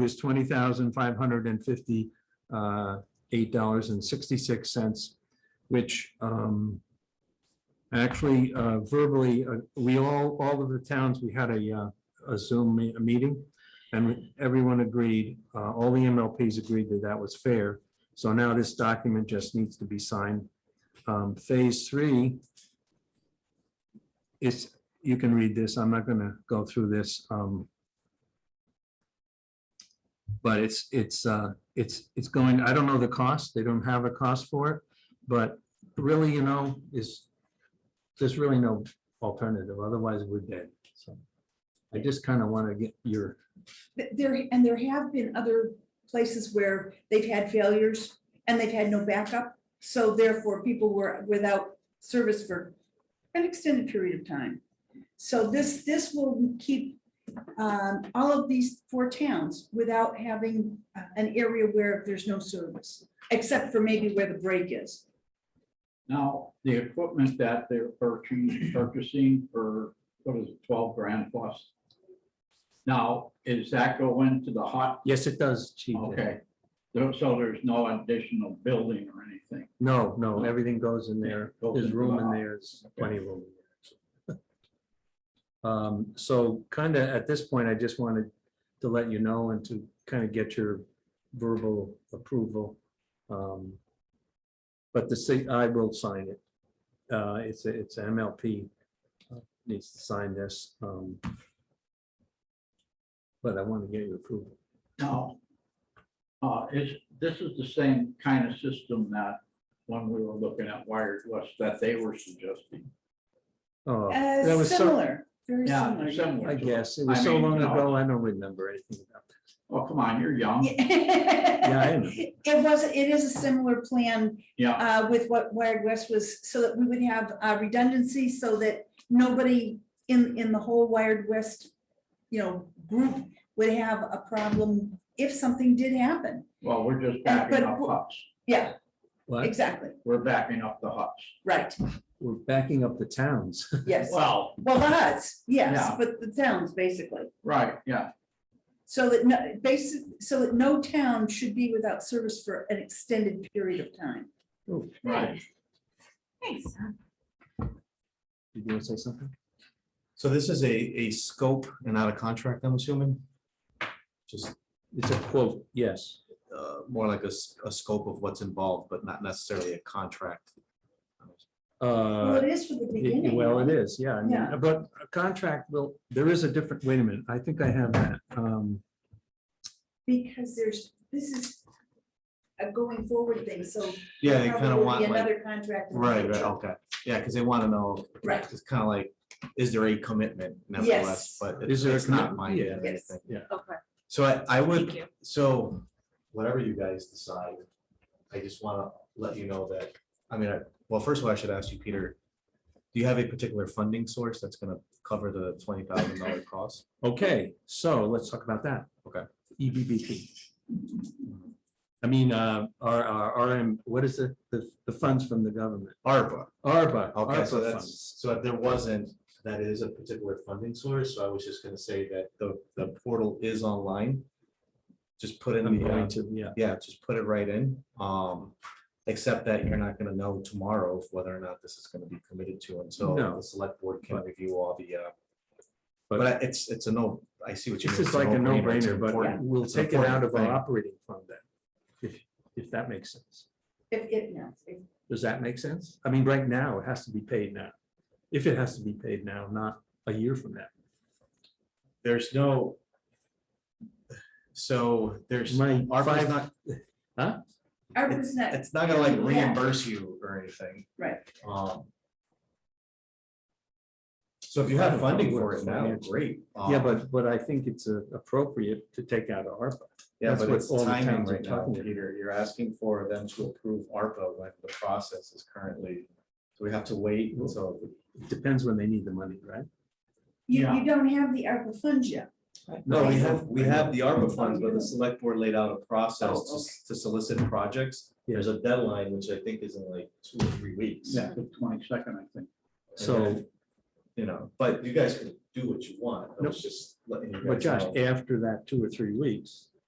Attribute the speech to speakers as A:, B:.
A: was twenty thousand five hundred and fifty-eight dollars and sixty-six cents, which um, actually uh, verbally, uh, we all, all of the towns, we had a uh, a Zoom me- a meeting, and everyone agreed, uh, all the MLPs agreed that that was fair. So now this document just needs to be signed. Um, Phase three is, you can read this, I'm not going to go through this. um, But it's, it's, uh, it's, it's going, I don't know the cost, they don't have a cost for it, but really, you know, is, there's really no alternative, otherwise we're dead, so. I just kind of want to get your,
B: Th- There, and there have been other places where they've had failures and they've had no backup. So therefore, people were without service for an extended period of time. So this, this will keep um, all of these four towns without having uh, an area where there's no service, except for maybe where the break is.
C: Now, the equipment that they're purchasing, purchasing for, what is it, twelve grand plus? Now, is that go into the hot?
A: yes, it does, Chief.
C: Okay, so so there's no additional building or anything.
A: No, no, everything goes in there.
C: Goes
A: There's
C: into
A: room
C: the
A: in
C: hall.
A: there, there's plenty of room. in there. Um, so kind of at this point, I just wanted to let you know and to kind of get your verbal approval. Um, But the city, I will sign it. Uh, it's, a- it's MLP uh, needs to sign this. um, But I want to get your approval.
C: Now, uh, is, this is the same kind of system that when we were looking at wired west that they were suggesting.
A: Oh, that
B: Uh,
A: was so,
B: Similar, very
C: Yeah,
B: similar.
C: similar.
A: I
C: to-
A: guess, it was
C: I
A: so
C: mean,
A: long
C: no.
A: ago, I don't remember anything about that.
C: Oh, come on, you're young.
A: Yeah, I
B: Yeah.
A: know.
B: It was, it is a similar plan
C: Yeah.
B: uh, with what Wired West was, so that we would have uh, redundancy, so that nobody in, in the whole Wired West, you know, group would have a problem if something did happen.
C: Well, we're just
B: And-
C: backing
B: but
C: up
B: w-
C: huts.
B: Yeah,
A: What?
B: exactly,
C: We're backing up the huts.
B: right,
A: We're backing up the towns.
B: yes.
C: Well,
B: Well, the huts, yes,
C: Yeah.
B: but the towns, basically.
C: right, yeah,
B: So that, no, basic, so that no town should be without service for an extended period of time.
A: Oh,
C: right.
B: Thanks.
A: Did you want to say something?
D: So this is a, a scope and not a contract, I'm assuming? Just
A: It's a quote, yes.
D: uh, more like a, s- a scope of what's involved, but not necessarily a contract.
B: Well,
A: Uh,
B: it is for the
A: it-
B: beginning.
A: Well, it is, yeah. I mean,
B: Yeah.
A: But a contract will, there is a different, wait a minute, I think I have that. Um,
B: Because there's, this is a going forward thing, so
D: Yeah, they kind of
B: probably
D: want like,
B: Another contract. in the
D: right, right,
B: future.
D: okay. Yeah, because they want to know,
B: Right.
D: it's kind of like, is there a commitment nevertheless?
B: Yes.
D: But
A: Is
D: it's
A: there a
D: it's not
A: commitment?
D: mine yet.
B: Yeah.
D: or
B: Yes.
D: anything.
B: Okay.
D: So I, I
B: Thank you.
D: would, so whatever you guys decide, I just want to let you know that, I mean, I well, first of all, I should ask you, Peter, do you have a particular funding source that's going to cover the twenty thousand dollar cost?
A: Okay, so let's talk about that. E
D: Okay.
A: EBBP. I mean, uh, our, our, RM, what is the, the, the funds from the government?
D: ARPA.
A: ARPA.
D: Okay, so
A: ARPA funds.
D: that's, so if there wasn't, that is a particular funding source, so I was just gonna say that the, the portal is online. Just put in
A: I'm
D: the,
A: going
D: uh,
A: to, yeah.
D: yeah, just put it right in, um, except that you're not gonna know tomorrow if whether or not this is gonna be committed to until
A: No.
D: the select board can
A: But-
D: review all the, uh,
A: But-
D: but it's, it's a no, I see what you mean.
A: This is
D: it's
A: like a
D: it's
A: no-brainer, but
D: important.
A: we'll
D: It's an
A: take it out
D: important
A: of our
D: thing.
A: operating fund then. If, if that makes sense.
B: If, if, no, if-
A: Does that make sense? I mean, right now, it has to be paid now. If it has to be paid now, not a year from now.
D: There's no. So there's.
A: My
D: ARPA is
A: five-
D: not,
B: ARPA's not,
D: it's not gonna like
B: Yeah.
D: reimburse you or anything.
B: right,
D: Um. So if you have funding for it now,
A: Financial.
D: great.
A: Yeah,
D: Um,
A: but, but I think it's uh, appropriate to take out of ARPA.
D: Yeah,
A: that's
D: but
A: what
D: it's
A: all the
D: timing
A: towns are
D: right now,
A: talking about.
D: Peter. You're asking for them to approve ARPA when the process is currently, so we have to wait until.
A: It Depends when they need the money, right?
B: you,
C: Yeah.
B: you don't have the ARPA funds yet,
D: No, we
B: Right.
D: have, we have the ARPA funds, but
B: Oh, yeah.
D: the select board laid out a process
B: Oh,
D: to s- to solicit projects. There's a deadline, which I think is in like two or three weeks.
C: Yeah, the twenty-second, I think.
D: And
A: So,
D: then, You know, but you guys can do what you want. I was just letting you guys know.
A: but Josh, after that two or three weeks,